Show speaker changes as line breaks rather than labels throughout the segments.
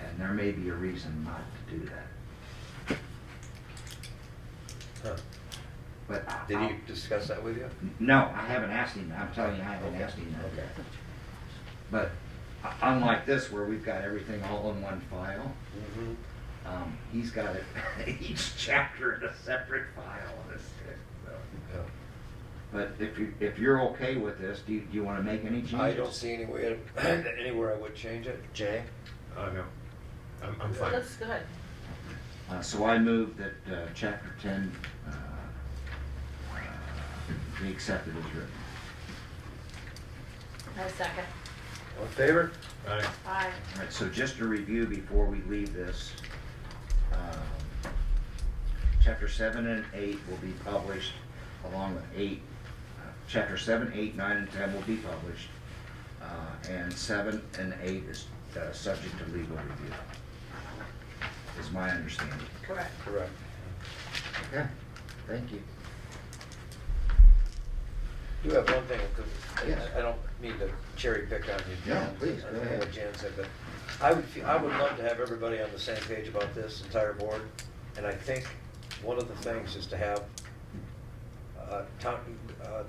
and there may be a reason not to do that.
Huh.
But I-
Did
I'll-
he discuss that with you?
No, I haven't asked him, I'm telling you, I haven't asked him that.
Okay.
But u- unlike this, where we've got everything all in one file,
Mhm.
um, he's got it, each chapter in a separate file, this, so.
Yeah.
But if you, if you're okay with this, do you, do you wanna make any changes?
I don't see any way, anywhere I would change it. Jay?
Uh, no, I'm, I'm fine.
Looks good.
Uh, so I move that, uh, chapter ten, uh, uh, be accepted as written.
No second.
All in favor?
Aye.
Aye.
All right, so just to review before we leave this, um, chapter seven and eight will be published along with eight. uh, Chapter seven, eight, nine, and ten will be published, uh, and seven and eight is, uh, subject to legal review, is my understanding.
Correct.
Correct.
Okay. Thank you.
Do have one thing, 'cause
Yes.
I I don't mean to cherry pick on you, Jan.
No, please, go
I don't know
ahead.
what Jan said, but I would, feel- I would love to have everybody on the same page about this entire board. And I think one of the things is to have uh, town, uh,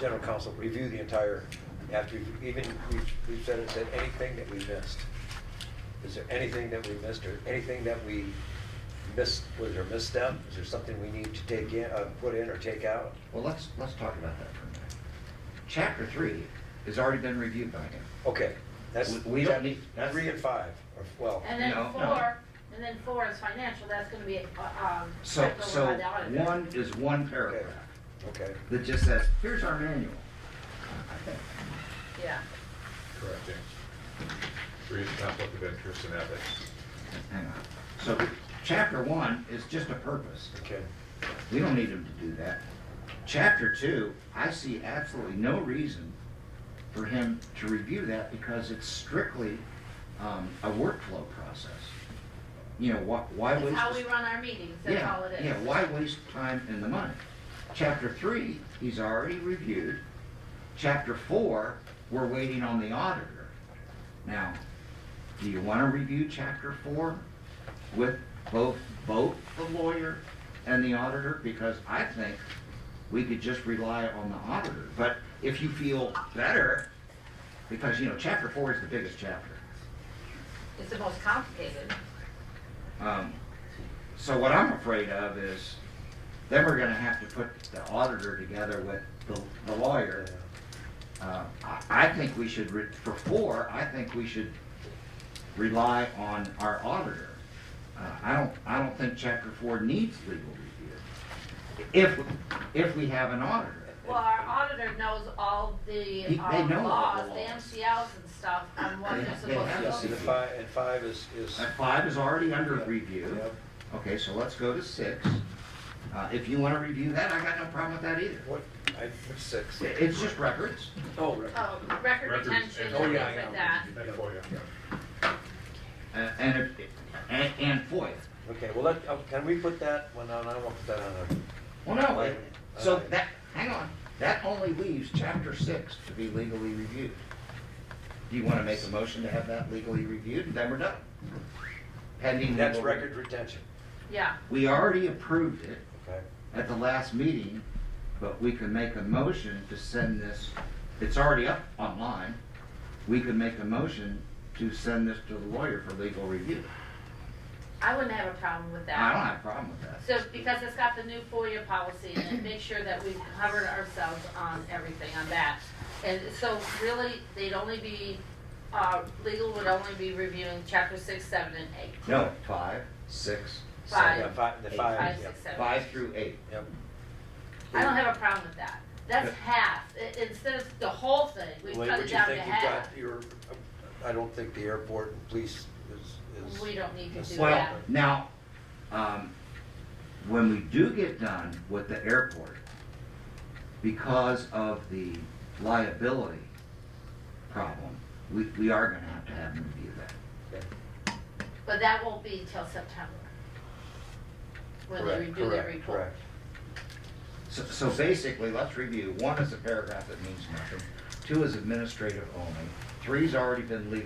general counsel review the entire, after, you've- even, we've- we've said it, said anything that we missed. Is there anything that we missed, or anything that we missed, was there a misstep? Is there something we need to take in, uh, put in or take out?
Well, let's, let's talk about that for a minute. Chapter three has already been reviewed by him.
Okay, that's,
We- we don't need- that's-
three and five, or, well,
And then
Oh, No, no.
four, and then four is financial, that's gonna be, uh, um,
So,
checked over
so
by the auditor.
one is one paragraph
okay,
that just says, here's our manual.
Yeah.
Correct, James. Read conflict of interest and ethics.
Hang on. So chapter one is just a purpose.
okay.
We don't need him to do that. Chapter two, I see absolutely no reason for him to review that because it's strictly um, a workflow process. You know, why, why waste?
That's how
the-
we run our meetings, that's
Yeah,
all it is.
Yeah, why waste time and the money? Chapter three, he's already reviewed. Chapter four, we're waiting on the auditor. Now, do you want to review chapter four with both, both the lawyer and the auditor? Because I think we could just rely on the auditor. But if you feel better, because, you know, chapter four is the biggest chapter.
It's the most complicated.
Um, So what I'm afraid of is, then we're gonna have to put the auditor together with the the lawyer. Uh, I I think we should, re- for four, I think we should rely on our auditor. Uh, I don't, I don't think chapter four needs legal review, if, if we have an auditor.
Well, our auditor knows all the,
He- they
um,
know all
laws,
the
the
laws.
MCLs and stuff, on what
They-
they're
they have
supposed to
See,
do.
the five, and five is, is,
Uh, Five is already under
Yeah.
review.
Yep.
Okay, so let's go to six. Uh, If you wanna review that, I got no problem with that either.
what, I, what's six?
It- It's just records.
Oh, right.
Oh, record
Records
retention
and-
and
Oh,
things
yeah, I
like
know.
that.
And FOIA.
Uh, and, if- and, and FOIA.
okay, well, let, oh, can we put that, well, no, no, I won't put that on there.
Mm-hmm. Well, no, it- so that, hang on, that only leaves chapter six to be legally reviewed. Do you want to make a motion to have that legally reviewed, and then we're done? Pending.
That's
legal re-
record retention,
Yeah,
We already approved it
okay?
at the last meeting, but we can make a motion to send this, it's already up online. We could make a motion to send this to the lawyer for legal review.
I wouldn't have a problem with that.
I don't have a problem with that.
So, because it's got the new FOIA policy in it, make sure that we've covered ourselves on everything on that. And so really, they'd only be, uh, legal would only be reviewing chapter six, seven, and eight.
No, five, six,
Five.
Yeah,
seven,
five, the
Eight.
five,
Five,
yep,
six, seven.
five through eight.
yep.
I don't have a problem with that. That's half. I- Instead of the whole thing, we
Wait,
cut
what
it
you
down to
think you've got
half.
your- I don't think the airport and police is, is.
We don't need to do
Well,
that.
now, um, when we do get done with the airport, because of the liability problem, we, we are gonna have to have them review that.
But that won't be until September. When they
Correct,
redo their
correct,
report.
correct.
So, so basically, let's review, one is a paragraph that means nothing, two is administrative only, three's already been legally